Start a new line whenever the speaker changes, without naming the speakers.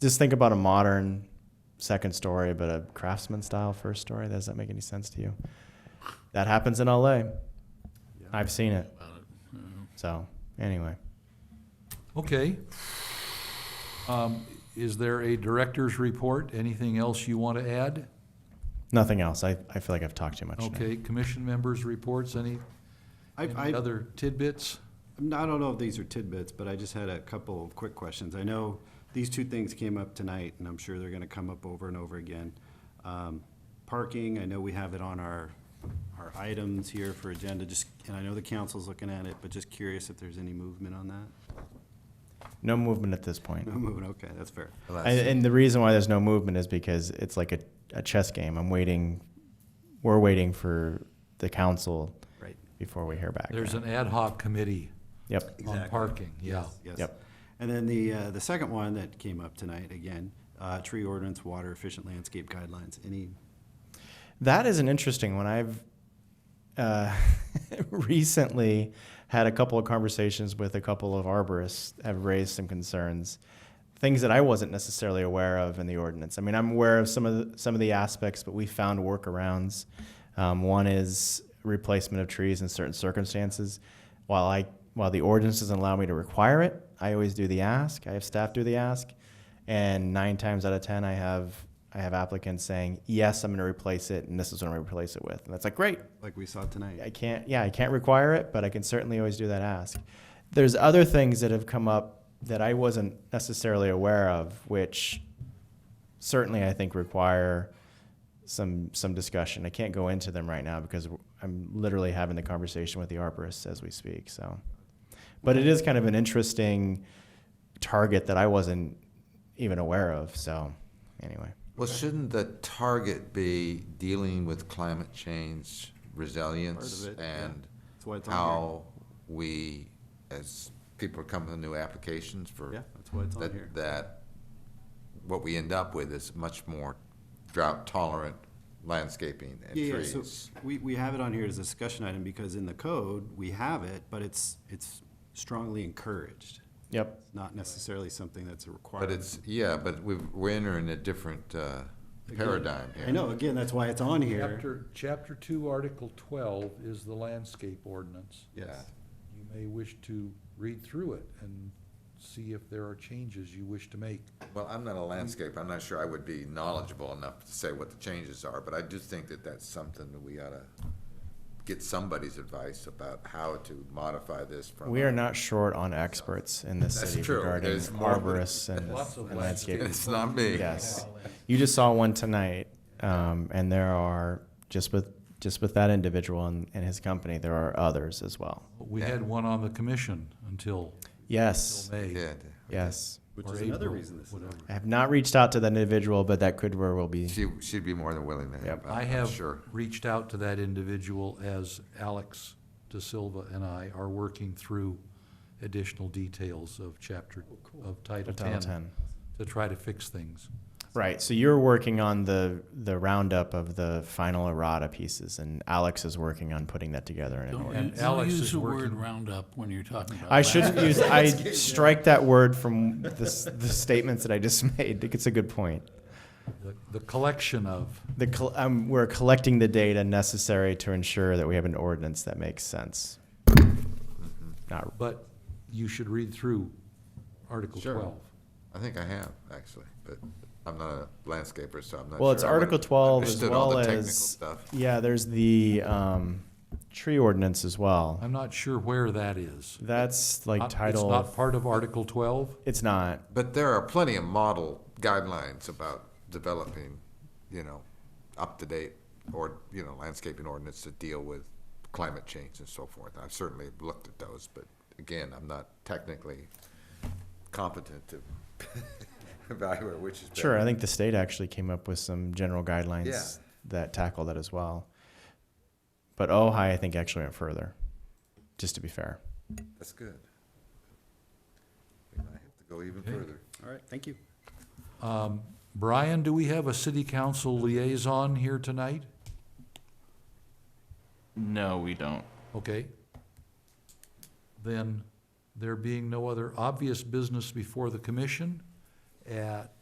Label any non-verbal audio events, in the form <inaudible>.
just think about a modern second story, but a craftsman style first story. Does that make any sense to you? That happens in LA. I've seen it. So anyway,
Okay. Um, Is there a director's report? Anything else you want to add?
nothing else. I, I feel like I've talked too much. now.
Okay, commission members' reports, any,
I,
any
I,
other tidbits?
I'm not- I don't know if these are tidbits, but I just had a couple of quick questions. I know these two things came up tonight, and I'm sure they're gonna come up over and over again. Um, Parking, I know we have it on our, our items here for agenda, just, and I know the council's looking at it, but just curious if there's any movement on that? <laughs>
No movement at this point.
No movement, okay, that's fair.
And, and the reason why there's no movement is because it's like a, a chess game. I'm waiting. We're waiting for the council
Right.
before we hear back.
There's an ad hoc committee
yep.
on parking, yeah.
Yes.
Yep.
And then the, uh, the second one that came up tonight, again, uh, tree ordinance, water efficient landscape guidelines, any,
That is an interesting one. I've uh, <laughs> recently had a couple of conversations with a couple of arborists have raised some concerns, things that I wasn't necessarily aware of in the ordinance. I mean, I'm aware of some of the, some of the aspects, but we found workarounds. Um, one is replacement of trees in certain circumstances. While I while the ordinance doesn't allow me to require it, I always do the ask. I have staff do the ask and nine times out of ten i have i have applicants saying yes i'm going to replace it and this is what i'm going to replace it with and that's like great
like we saw tonight?
i can't yeah i can't require it but i can certainly always do that ask there's other things that have come up that i wasn't necessarily aware of which certainly i think require some some discussion i can't go into them right now because i'm literally having the conversation with the arborists as we speak so but it is kind of an interesting target that i wasn't even aware of so anyway
Well, shouldn't the target be dealing with climate change resilience
Part of it, yeah.
and
That's why it's on here.
how we, as people are coming with new applications for
Yeah, that's why it's on
that,
here.
that what we end up with is much more drought tolerant landscaping and
Yeah, yeah,
trees.
so we, we have it on here as a discussion item because in the code, we have it, but it's, it's strongly encouraged.
yep
It's not necessarily something that's a requirement.
but it's yeah, but we've, we're entering a different uh,
Again,
paradigm here.
I know, again, that's why it's on here.
Chapter, chapter two, article twelve is the landscape ordinance.
Yeah.
You may wish to read through it and see if there are changes you wish to make.
Well, I'm not a landscape, I'm not sure I would be knowledgeable enough to say what the changes are, but I do think that that's something that we ought to get somebody's advice about how to modify this from.
we are not short on experts in this
That's
city
true.
regarding
There's more than-
arborists and,
Lots of
and
landscape.
landscaping
It's not me.
Yes. You just saw one tonight, um, and there are just with just with that individual and, and his company, there are others as well.
We had one on the commission until,
Yes.
until May.
Yeah,
Yes.
Which
or
is another
April,
reason this is on.
whatever.
I have not reached out to that individual, but that could very well be.
she, she'd be more than willing to help,
I
Uh, I'm- I'm
have
sure.
reached out to that individual as Alex Da Silva and I are working through additional details of chapter, of Title
Title
Ten,
10.
to try to fix things.
Right. So you're working on the the roundup of the final errata pieces, and Alex is working on putting that together in an order.
And
Don't
Alex
don't use
is
the word
working-
roundup when you're talking about.
I
Oh,
that.
shouldn't
<laughs>
use. I strike that word from the, s- the statements that I just <laughs> made. I think it's a good point.
The- The collection of,
The col- um, we're collecting the data necessary to ensure that we have an ordinance that makes sense.
Mm-hmm.
Not
but you should read through Article
Sure.
twelve.
I think I have, actually, but I'm not a landscaper, so I'm not sure.
well, it's
I would've
Article Twelve as
understood all
well
the
as
technical stuff.
yeah. There's the um, tree ordinance as well.
I'm not sure where that is.
That's like
Uh,
title.
It's not part of Article twelve?
it's not.
But there are plenty of model guidelines about developing, you know, up-to-date or, you know, landscaping ordinance to deal with climate change and so forth. I've certainly looked at those, but again, I'm not technically competent to <laughs> evaluate which is better.
Sure, I think the state actually came up with some general guidelines
Yeah.
that tackle that as well. But Ojai, I think, actually went further. Just to be fair.
That's good. We might have to go even further.
All right, thank you.
Brian, do we have a city council liaison here tonight?
No, we don't.
Okay. Then, there being no other obvious business before the commission, at